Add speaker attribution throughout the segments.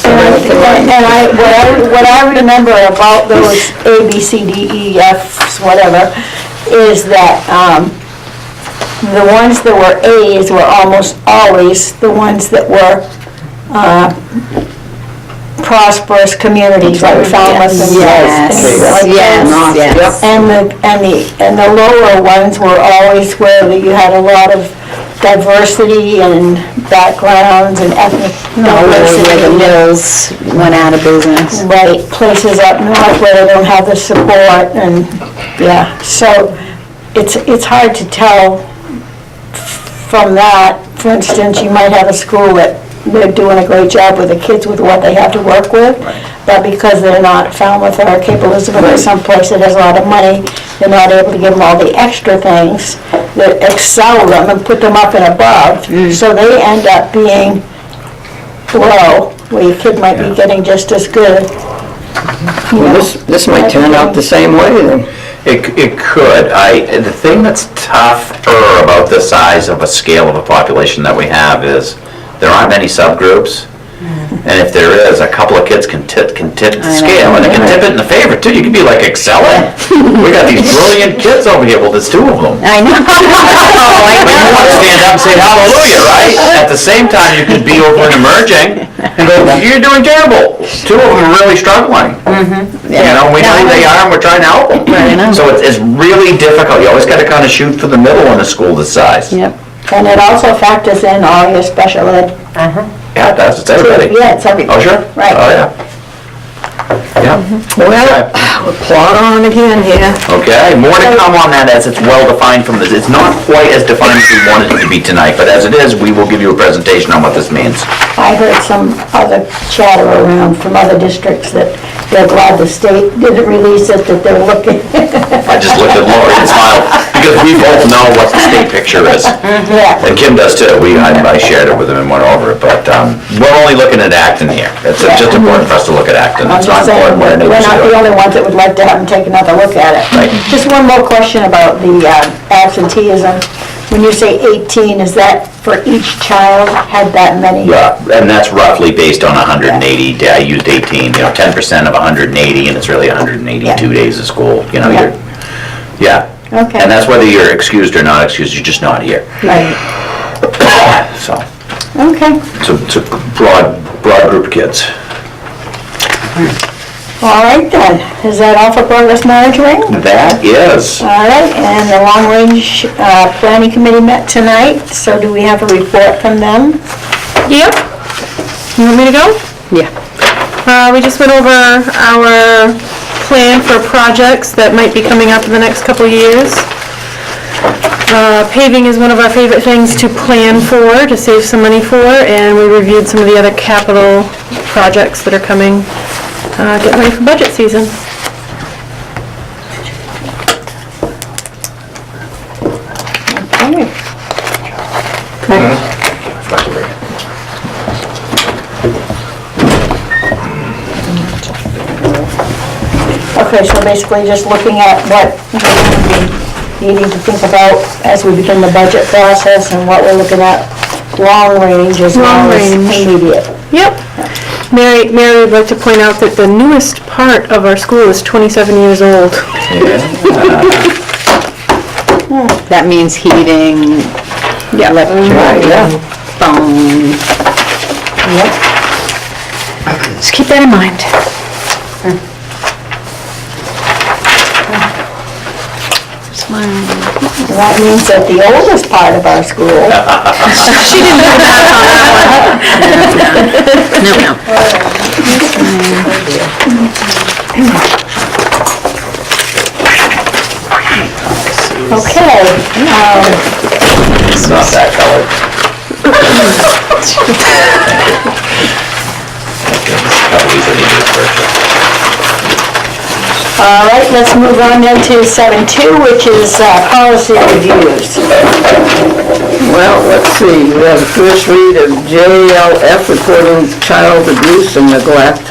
Speaker 1: with the
Speaker 2: And and I, what I, what I remember about those A, B, C, D, E, Fs, whatever, is that, um, the ones that were As were almost always the ones that were, uh, prosperous communities, like Falmouth and.
Speaker 1: Yes,
Speaker 2: and like
Speaker 1: yes,
Speaker 2: those.
Speaker 1: yes.
Speaker 2: And the, and the, and the lower ones were always where you had a lot of diversity and backgrounds and ethnic
Speaker 1: No,
Speaker 2: diversity.
Speaker 1: where the mills went out of business.
Speaker 2: Right, places up north where they don't have the support and, yeah, so it's, it's hard to tell from that. For instance, you might have a school that they're doing a great job with the kids with what they have to work with, but because they're not Falmouth or Cape Elizabeth or someplace that has a lot of money, they're not able to give them all the extra things that excel them and put them up and above. So they end up being low, where your kid might be getting just as good. you know.
Speaker 3: Well, this, this might turn out the same way then.
Speaker 4: It, c- it could. I, the thing that's tougher about the size of a scale of a population that we have is there aren't many subgroups. And if there is, a couple of kids can tip, can tip the scale and they can tip it in the favor too. You can be like excelling. We got these brilliant kids over here. Well, there's two of them.
Speaker 1: I know.
Speaker 4: But you want to stand up and say hallelujah, right? At the same time, you could be over and emerging and go, you're doing terrible. Two of them are really struggling. You know, we know who they are and we're trying to help them.
Speaker 1: Mm-hmm. Right, I know.
Speaker 4: So it's, it's really difficult. You always got to kind of shoot for the middle in a school this size.
Speaker 1: Yep.
Speaker 2: And it also factors in all your special ed.
Speaker 4: Yeah, that's, it's everybody.
Speaker 2: Yeah, it's everything.
Speaker 4: Oh, sure?
Speaker 2: Right.
Speaker 4: Oh, yeah. Yeah.
Speaker 3: Well, plot on again here.
Speaker 4: Mm-hmm. Okay, more to come on that as it's well-defined from this. It's not quite as defined as we wanted it to be tonight, but as it is, we will give you a presentation on what this means.
Speaker 2: I heard some other chatter around from other districts that they're glad the state didn't release it, that they're looking.
Speaker 4: I just looked at Lori and smiled, because we both know what the state picture is.
Speaker 2: Yeah,
Speaker 4: And Kim does too. We, I I shared it with him and went over it, but um, we're only looking at Acton here. It's just important for us to look at Acton.
Speaker 2: I'm
Speaker 4: It's not
Speaker 2: just saying,
Speaker 4: important what
Speaker 2: we're
Speaker 4: our neighbors
Speaker 2: not the
Speaker 4: do.
Speaker 2: only ones that would like to have them take another look at it.
Speaker 4: Right.
Speaker 2: Just one more question about the uh, absenteeism. When you say 18, is that for each child had that many?
Speaker 4: Yeah, and that's roughly based on 180, I used 18, you know, 10% of 180, and it's really 182 days of school, you know,
Speaker 2: Yeah.
Speaker 4: you're, yeah.
Speaker 2: Okay.
Speaker 4: And that's whether you're excused or not excused, you're just not here,
Speaker 2: Right,
Speaker 4: so.
Speaker 2: okay.
Speaker 4: It's a, it's a broad, broad group of kids.
Speaker 2: All right then, is that all for progress monitoring?
Speaker 4: That is.
Speaker 2: All right, and the Long Range uh, Planning Committee met tonight, so do we have a report from them?
Speaker 5: Yep. You want me to go?
Speaker 1: Yeah.
Speaker 5: Uh, we just went over our plan for projects that might be coming up in the next couple of years. Uh, paving is one of our favorite things to plan for, to save some money for, and we reviewed some of the other capital projects that are coming, uh, getting ready for budget season.
Speaker 2: Okay, so basically just looking at what we need to think about as we begin the budget process and what we're looking at long range as well
Speaker 5: Long
Speaker 2: as
Speaker 5: range.
Speaker 2: immediate.
Speaker 5: Yep. Mary, Mary would like to point out that the newest part of our school is 27 years old.
Speaker 1: That means heating, electric, phone. Just keep that in mind.
Speaker 2: And That means that the oldest part of our school,
Speaker 1: No, no.
Speaker 2: okay, um,
Speaker 4: It's not that color.
Speaker 2: All right, let's move on then to seven two, which is uh, policy reviews.
Speaker 3: Well, let's see, we have the first read of JLF reporting child abuse and neglect,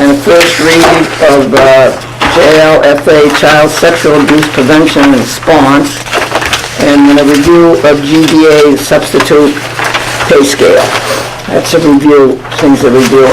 Speaker 3: and the first read of uh, JLFA Child Sexual Abuse Prevention and Response, and then a review of GBA substitute pay scale. That's a review, things that we do